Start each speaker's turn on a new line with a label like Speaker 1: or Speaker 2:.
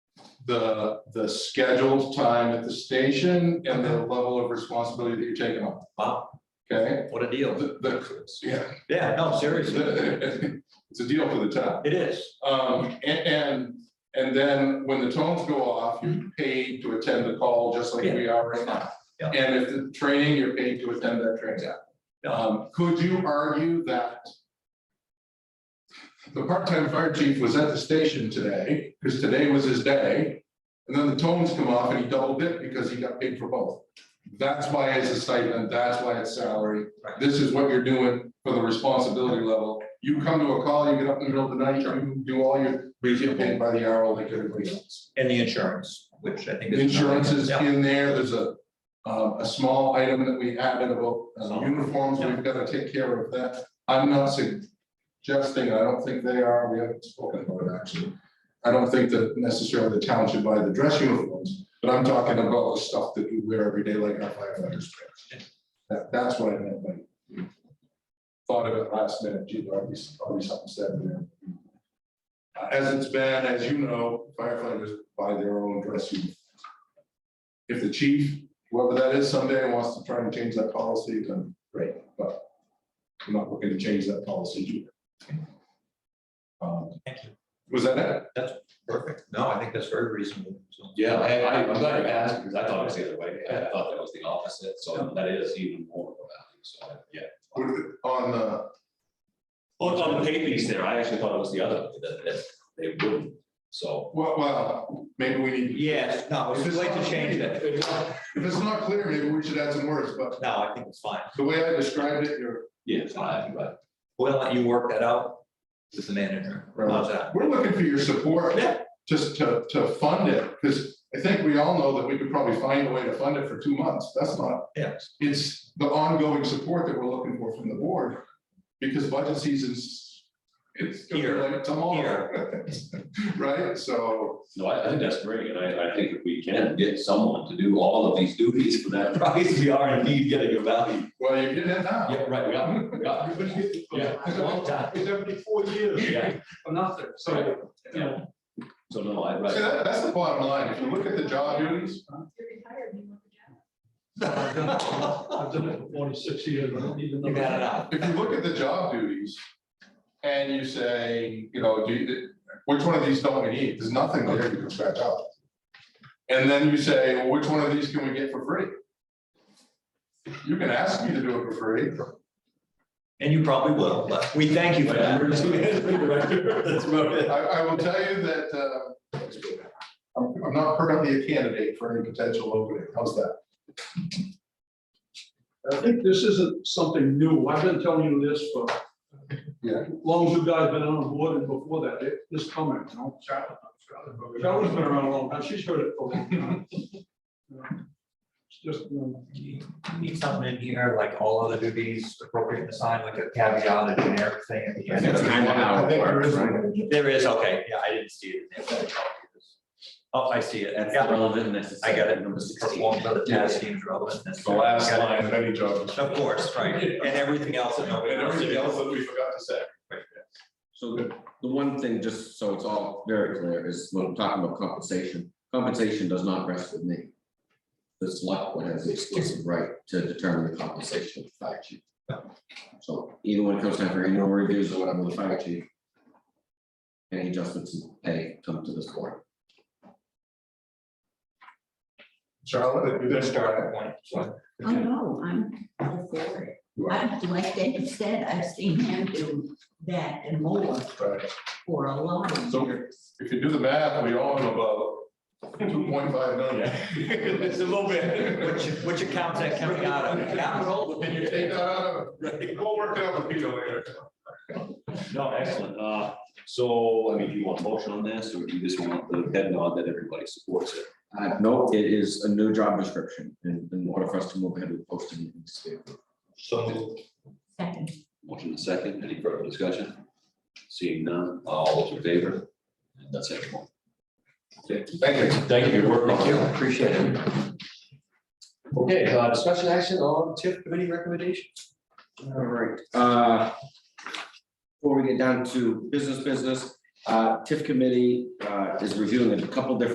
Speaker 1: the, the scheduled time at the station and the level of responsibility that you're taking on,
Speaker 2: Wow,
Speaker 1: okay?
Speaker 2: what a deal.
Speaker 1: The, the, yeah.
Speaker 2: Yeah, no, seriously,
Speaker 1: It's a deal for the town.
Speaker 2: it is.
Speaker 1: Um, and, and, and then when the tones go off, you're paid to attend the call, just like we are right now.
Speaker 2: Mm-hmm. Yeah.
Speaker 1: And if the training, you're paid to attend that training.
Speaker 2: Yeah.
Speaker 1: Um, could you argue that the part-time fire chief was at the station today, because today was his day, and then the tones come off and he doubled it because he got paid for both? That's why it's a stipend, that's why it's salary,
Speaker 2: Right.
Speaker 1: this is what you're doing for the responsibility level. You come to a call, you get up in the middle of the night, you do all your, you get paid by the hour like everybody else.
Speaker 2: And the insurance, which I think. is-
Speaker 1: Insurance is
Speaker 2: Yeah,
Speaker 1: in there, there's a, um, a small item that we added about uh,
Speaker 2: So-
Speaker 1: uniforms, we've got to take care of that. I'm not suggesting, I don't think they are, we haven't spoken about it actually. I don't think that necessarily the town should buy the dress uniforms, but I'm talking about the stuff that you wear every day like our firefighters. wear. That, that's what I meant by. Thought of it last minute, gee, there'll be, there'll be something said there. Uh, As it's been, as you know, firefighters buy their own dress uniforms. If the chief, whoever that is someday wants to try and change that policy, then great, but I'm not looking to change that policy either. Um,
Speaker 2: Thank you.
Speaker 1: Was that it?
Speaker 2: Perfect. No, I think that's very reasonable. So,
Speaker 3: Yeah, I, I, I'm glad you asked, because I thought it was the other way, I thought that was the opposite, so that is even more of a value, so, yeah.
Speaker 1: What is it? On, uh,
Speaker 3: Well, it's on the pay piece there, I actually thought it was the other, that, that they wouldn't, so.
Speaker 1: well, well, maybe we need,
Speaker 2: Yes, no, it's too late to change that.
Speaker 1: if it's not clear, maybe we should add some words, but
Speaker 2: No, I think it's fine.
Speaker 1: the way I described it, you're,
Speaker 3: Yeah, it's fine, but
Speaker 2: We'll let you work that out with the manager. How's that?
Speaker 1: we're looking for your support.
Speaker 2: Yeah.
Speaker 1: Just to, to fund it, because I think we all know that we could probably find a way to fund it for two months, that's not
Speaker 2: Yes.
Speaker 1: it's the ongoing support that we're looking for from the board, because budget season's, it's gonna be
Speaker 2: Here.
Speaker 1: like tomorrow. Right, so,
Speaker 3: No, I, I think that's great, and I, I think if we can get someone to do all of these duties for that price, we are indeed getting a value.
Speaker 1: well, you're getting it now.
Speaker 3: Yeah, right, we are, we are. Yeah.
Speaker 4: Seventy-four years.
Speaker 3: Yeah,
Speaker 4: For nothing, so.
Speaker 3: yeah. So no, I,
Speaker 1: See,
Speaker 3: right,
Speaker 1: that, that's the bottom line, if you look at the job duties,
Speaker 5: You're retired, you want the job.
Speaker 4: I've done it for- I've done it for forty-six years, I don't need another.
Speaker 2: You got it out.
Speaker 1: if you look at the job duties, and you say, you know, do you, which one of these don't we need, there's nothing there you can scratch out. And then you say, well, which one of these can we get for free? You can ask me to do it for free,
Speaker 2: And you probably will, but we thank you for that. That's about it.
Speaker 1: I, I will tell you that, uh, I'm, I'm not currently a candidate for any potential opening, how's that?
Speaker 4: I think this isn't something new. I've been telling you this for.
Speaker 1: Yeah.
Speaker 4: Long as you guys been on board and before that, it- this comment, you know. Charlotte's been around a long time. She's heard it for a long time. It's just, um,
Speaker 2: You Need something in here, like all other duties appropriate to sign, like a caveat, a generic thing at the end.
Speaker 1: I think there is one.
Speaker 2: There is, okay, yeah, I didn't see it. in there, but I copy this. Oh, I see it, and yeah,
Speaker 3: relevant, that's.
Speaker 2: I got it, number six, perform other tasks deemed relevant.
Speaker 3: It's the last
Speaker 2: Got it.
Speaker 3: line.
Speaker 1: And any job. description.
Speaker 2: Of course, right, and everything else. that nobody
Speaker 1: And
Speaker 2: wants to
Speaker 1: everything
Speaker 2: do.
Speaker 1: else that we forgot to say.
Speaker 6: So the, the one thing, just so it's all very clear, is when I'm talking about compensation, compensation does not rest with me. The select board has the exclusive right to determine the compensation of the fire chief. So even when it comes time for annual reviews or whatever, the fire chief. Any adjustments in pay come to this board.
Speaker 1: Charlotte,
Speaker 2: Good
Speaker 1: there's
Speaker 2: starting point. So,
Speaker 7: Oh, no, I'm all for it. I, like Dave said, I've seen him do that and more for a lot of
Speaker 1: So-
Speaker 7: years.
Speaker 1: If you do the math, we own about two point five million.
Speaker 3: It's a little bit.
Speaker 2: Which, which account's that coming out of? Yeah.
Speaker 1: Can you take that out of, it? we'll work it out with you later.
Speaker 3: No, excellent. Uh, so, I mean, do you want a motion on this, or do you just want the head nod that everybody supports it?
Speaker 6: Uh, no, it is a new job description and in order for us to move ahead with posting. and state.
Speaker 2: So,
Speaker 7: Second,
Speaker 3: Motion and second, any further discussion? Seeing none, all those in favor? And That's it.
Speaker 1: Thank you.
Speaker 3: Thank you for your work.
Speaker 2: thank you, appreciate it.
Speaker 3: Okay, uh, discussion action on TIF committee recommendation?
Speaker 6: All right, uh. Before we get down to business, business, uh, TIF committee, uh, is reviewing a couple different